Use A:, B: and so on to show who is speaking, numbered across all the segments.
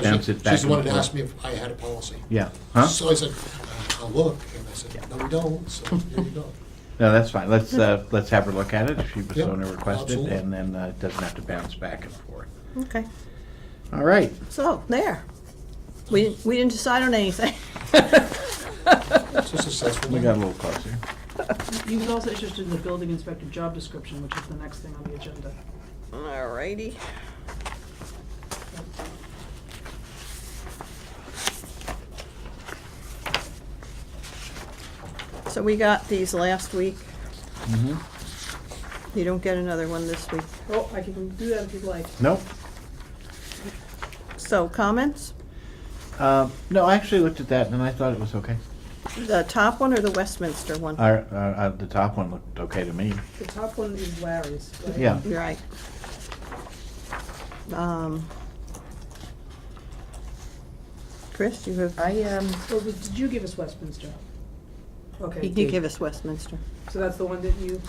A: stamps it back
B: She's the
A: and
B: one that
A: forth.
B: asked me if I had a policy.
A: Yeah, huh?
B: So I said, "Uh, I'll look, and I said, no, we don't, so here you go.
A: No, that's fine. Let's, uh, let's have her look at it if she was
B: Yeah,
A: so requested,
B: absolutely.
A: and then uh, it doesn't have to bounce back and forth.
C: Okay,
A: All right.
C: so there. We, we didn't decide on anything.
B: It's a successful.
A: We
B: meeting.
A: got a little closer.
D: He was also interested in the building inspector job description, which is the next thing on the agenda.
C: Alrighty. So we got these last week.
A: Mm-hmm.
C: You don't get another one this week.
D: Oh, I can do that if you'd like.
A: Nope.
C: So comments?
A: Uh, No, I actually looked at that, and I thought it was okay.
C: The top one or the Westminster one?
A: Our, our- uh, the top one looked okay to me.
D: The top one is Larry's, right?
A: Yeah.
C: You're right. Um, Chris, you have,
E: I, um,
D: Or was- did you give us Westminster? Okay.
C: he did give us Westminster.
D: So that's the one that you,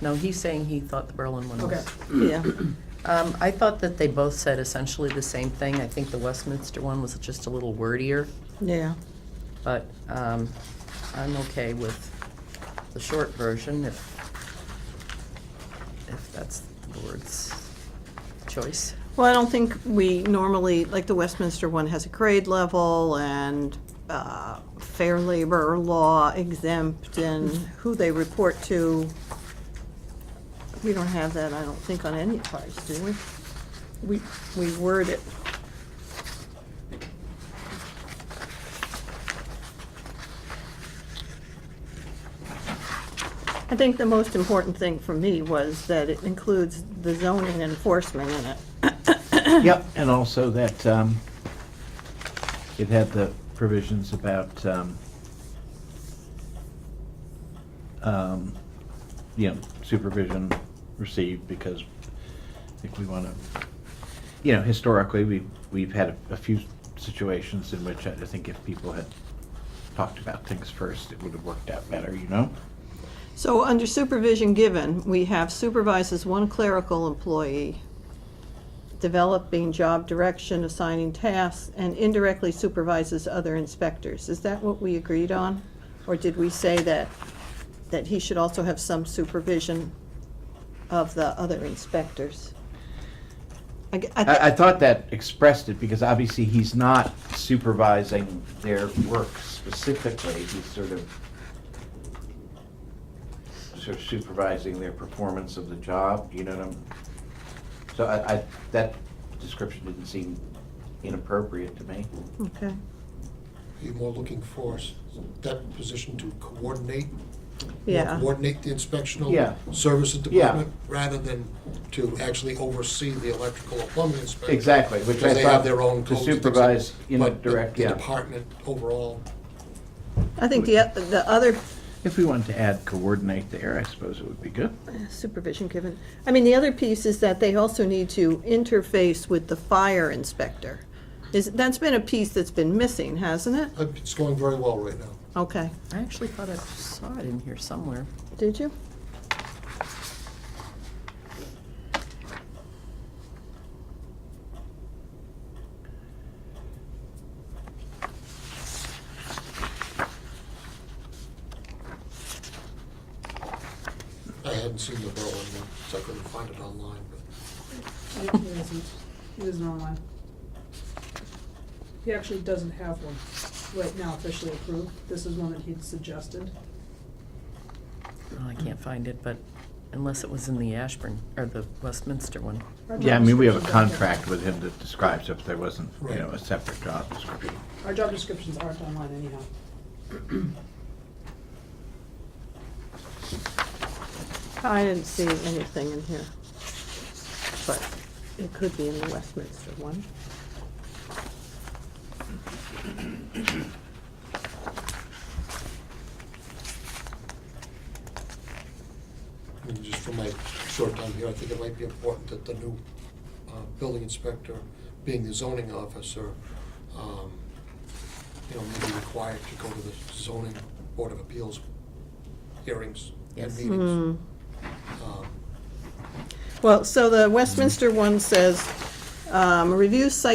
E: no, he's saying he thought the Berlin one
D: okay.
E: was.
C: Yeah,
E: Um, I thought that they both said essentially the same thing. I think the Westminster one was just a little wordier,
C: yeah.
E: but, um, I'm okay with the short version if, if that's the board's choice.
C: Well, I don't think we normally, like the Westminster one has a grade level and uh, fair labor law exempt and who they report to. We don't have that, I don't think, on any of ours, do we? We, we word it. I think the most important thing for me was that it includes the zoning enforcement in it.
A: Yep, and also that um, it had the provisions about, um, um, you know, supervision received because I think we want to, you know, historically, we, we've had a- a few situations in which I think if people had talked about things first, it would have worked out better, you know?
C: So under supervision given, we have supervises one clerical employee, developing job direction, assigning tasks, and indirectly supervises other inspectors. Is that what we agreed on? Or did we say that, that he should also have some supervision of the other inspectors? I g- I
A: I, I
C: thi-
A: thought that expressed it because obviously he's not supervising their work specifically. He's sort of sort of supervising their performance of the job. You know what I'm? So I, I that description didn't seem inappropriate to me.
C: Okay,
B: You're more looking for s- that position to coordinate, more
C: yeah,
B: coordinate the inspectional
A: Yeah.
B: services
A: Yeah.
B: department, rather than to actually oversee the electrical or plumbing inspection.
A: Exactly, which I
B: Because they have
A: thought
B: their own
A: to
B: codes. and things like
A: supervise
B: that.
A: in a
B: But the-
A: direct-
B: The
A: yeah.
B: department overall,
C: I think the, oth- the other
A: If we wanted to add coordinate there, I suppose it would be good.
C: supervision given. I mean, the other piece is that they also need to interface with the fire inspector. Is, that's been a piece that's been missing, hasn't it?
B: uh, it's going very well right now.
C: Okay,
E: I actually thought I saw it in here somewhere.
C: did you?
B: I hadn't seen the Berlin one, so I couldn't find it online, but
D: It it isn't, it isn't online. He actually doesn't have one right now officially approved. This is one that he'd suggested.
E: Oh, I can't find it, but unless it was in the Ashburn, or the Westminster one.
D: Our
A: Yeah, I
D: job
A: mean, we have a
D: descriptions aren't-
A: contract with him that describes if there wasn't, you know, a separate job description.
D: Our job descriptions aren't online anyhow.
C: I didn't see anything in here. But it could be in the Westminster one.
B: And just from my short time here, I think it might be important that the new uh, building inspector, being the zoning officer, um, you know, may be required to go to the zoning board of appeals hearings and
E: Yes.
C: Hmm.
B: meetings. Um,
C: Well, so the Westminster one says, um, review site